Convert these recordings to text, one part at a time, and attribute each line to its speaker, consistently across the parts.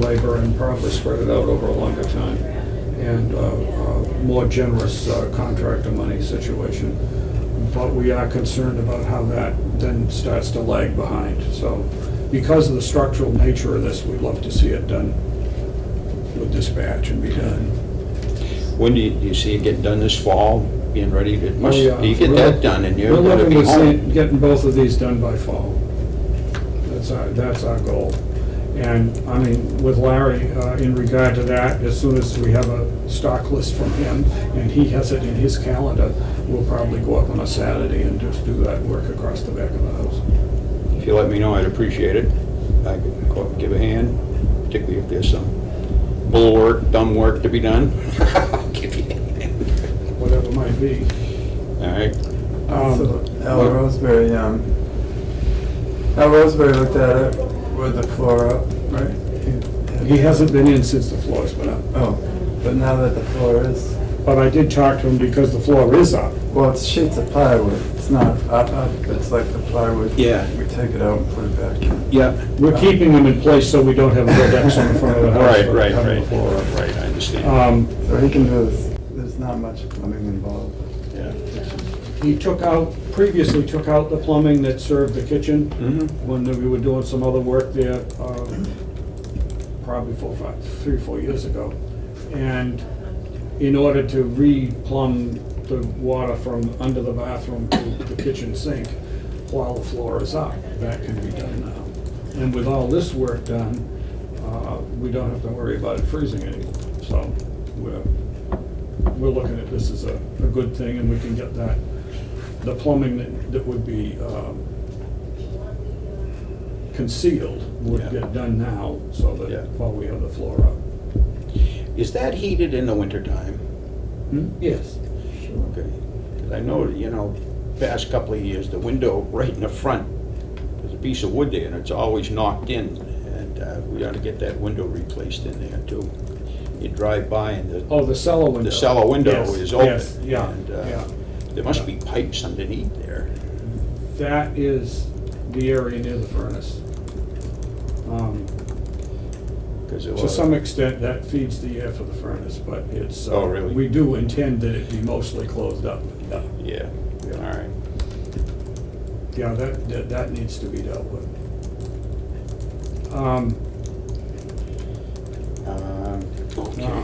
Speaker 1: labor and probably spread it out over a longer time and uh, a more generous uh, contractor money situation. But we are concerned about how that then starts to lag behind. So because of the structural nature of this, we'd love to see it done with dispatch and be done.
Speaker 2: When do you, do you see it get done this fall, being ready to, must,
Speaker 1: We, uh,
Speaker 2: you get
Speaker 1: we're-
Speaker 2: that done and you're
Speaker 1: We're
Speaker 2: gonna
Speaker 1: looking
Speaker 2: be
Speaker 1: to see,
Speaker 2: home.
Speaker 1: getting both of these done by fall. That's our, that's our goal. And, I mean, with Larry, uh, in regard to that, as soon as we have a stock list from him, and he has it in his calendar, we'll probably go up on a Saturday and just do that work across the back of the house.
Speaker 2: If you let me know, I'd appreciate it. I could go up, give a hand, particularly if there's some bull work, dumb work to be done. Give you a hand.
Speaker 1: whatever it might be.
Speaker 2: All right,
Speaker 1: Um,
Speaker 3: So Al Roseberry, um, Al Roseberry looked at it with the floor up, right?
Speaker 1: He hasn't been in since the floor's been up,
Speaker 3: Oh, but now that the floor is,
Speaker 1: but I did talk to him because the floor is up.
Speaker 3: well, it's sheets of plywood. It's not up, up, it's like the plywood.
Speaker 2: Yeah.
Speaker 3: We take it out and put it back in.
Speaker 2: yeah.
Speaker 1: We're keeping them in place so we don't have a red X on the front of the house.
Speaker 2: Right,
Speaker 1: for
Speaker 2: right,
Speaker 1: having the
Speaker 2: right,
Speaker 1: floor up.
Speaker 2: right, I understand.
Speaker 1: Um,
Speaker 3: So he can do this, there's not much plumbing involved.
Speaker 2: Yeah.
Speaker 1: Um, He took out, previously took out the plumbing that served the kitchen
Speaker 2: Mhm.
Speaker 1: when we were doing some other work there, um, probably four, five, three, four years ago. And in order to re-plumb the water from under the bathroom to the kitchen sink while the floor is up, that can be done now. And with all this work done, uh, we don't have to worry about it freezing anymore. So we're, we're looking at this as a, a good thing and we can get that, the plumbing that, that would be um, concealed would
Speaker 2: Yeah.
Speaker 1: get done now so
Speaker 2: Yeah.
Speaker 1: that while we have the floor up.
Speaker 2: Is that heated in the wintertime?
Speaker 1: Hmm? Yes.
Speaker 2: Okay, because I know, you know, past couple of years, the window right in the front, there's a piece of wood there, and it's always knocked in, and uh, we ought to get that window replaced in there too. You drive by and the,
Speaker 1: Oh, the cellar window.
Speaker 2: the cellar window
Speaker 1: Yes,
Speaker 2: is open.
Speaker 1: Yes, yeah,
Speaker 2: and, uh,
Speaker 1: yeah.
Speaker 2: There must be pipes underneath there.
Speaker 1: That is the area near the furnace. Um,
Speaker 2: 'cause it
Speaker 1: To
Speaker 2: was-
Speaker 1: some extent, that feeds the air for the furnace, but it's. uh,
Speaker 2: Oh, really?
Speaker 1: We do intend that it be mostly closed up. Yeah,
Speaker 2: Yeah,
Speaker 1: Yeah.
Speaker 2: all right.
Speaker 1: Yeah, that, that, that needs to be dealt with. Um,
Speaker 2: Um, Okay.
Speaker 1: now,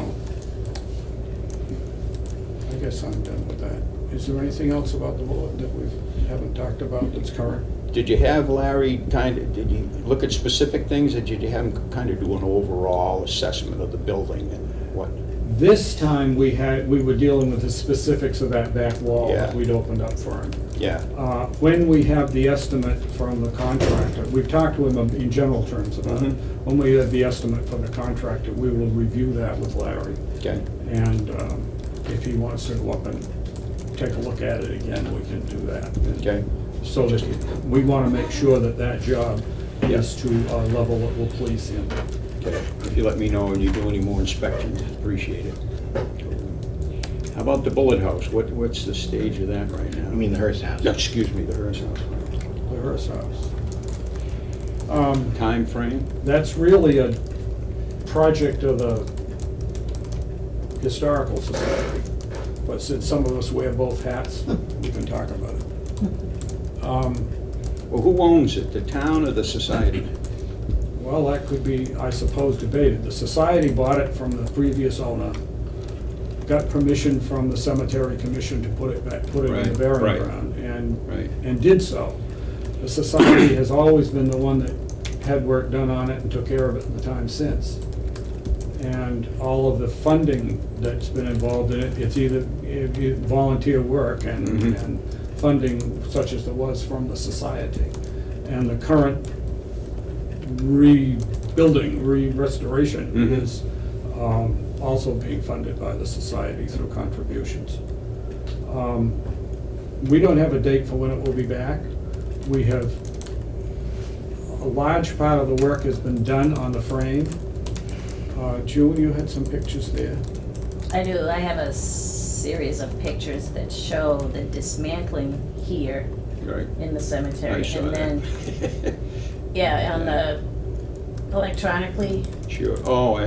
Speaker 1: I guess I'm done with that. Is there anything else about the bullet that we haven't talked about that's current?
Speaker 2: Did you have Larry kind of, did you look at specific things, or did you have him kind of do an overall assessment of the building and what?
Speaker 1: This time, we had, we were dealing with the specifics of that back wall that
Speaker 2: Yeah.
Speaker 1: we'd opened up for him.
Speaker 2: Yeah,
Speaker 1: Uh, When we have the estimate from the contractor, we've talked to him in general terms about it.
Speaker 2: Mhm.
Speaker 1: When we have the estimate from the contractor, we will review that with Larry.
Speaker 2: okay.
Speaker 1: And um, if he wants to go up and take a look at it again, we can do that.
Speaker 2: Okay,
Speaker 1: So that, we want to make sure that that job is to a level that will please him.
Speaker 2: okay. If you let me know and you do any more inspections, appreciate it. How about the bullet house? What, what's the stage of that right now?
Speaker 4: I mean, the Hearst house.
Speaker 2: No, Excuse me, the Hearst house.
Speaker 1: The Hearst House. Um,
Speaker 2: Time frame?
Speaker 1: that's really a project of the Historical Society, but since some of us wear both hats, we can talk about it. Um,
Speaker 2: Well, who owns it, the town or the society?
Speaker 1: Well, that could be, I suppose, debated. The society bought it from the previous owner, got permission from the cemetery commission to put it back, put it in
Speaker 2: Right,
Speaker 1: the burying
Speaker 2: right.
Speaker 1: ground,
Speaker 2: Right.
Speaker 1: and, and did so. The society has always been the one that had work done on it and took care of it in the time since. And all of the funding that's been involved in it, it's either it- it volunteer work and,
Speaker 2: Mhm.
Speaker 1: and funding such as there was from the society. And the current rebuilding, re-restoration
Speaker 2: Mhm.
Speaker 1: is um, also being funded by the society through contributions. Um, We don't have a date for when it will be back. We have, a large part of the work has been done on the frame. Uh, June, you had some pictures there.
Speaker 5: I do, I have a series of pictures that show the dismantling here
Speaker 2: Right.
Speaker 5: in the
Speaker 2: Oh,
Speaker 5: cemetery.
Speaker 2: I saw
Speaker 5: And
Speaker 2: that.
Speaker 5: then, yeah, on the electronically
Speaker 2: Sure, oh,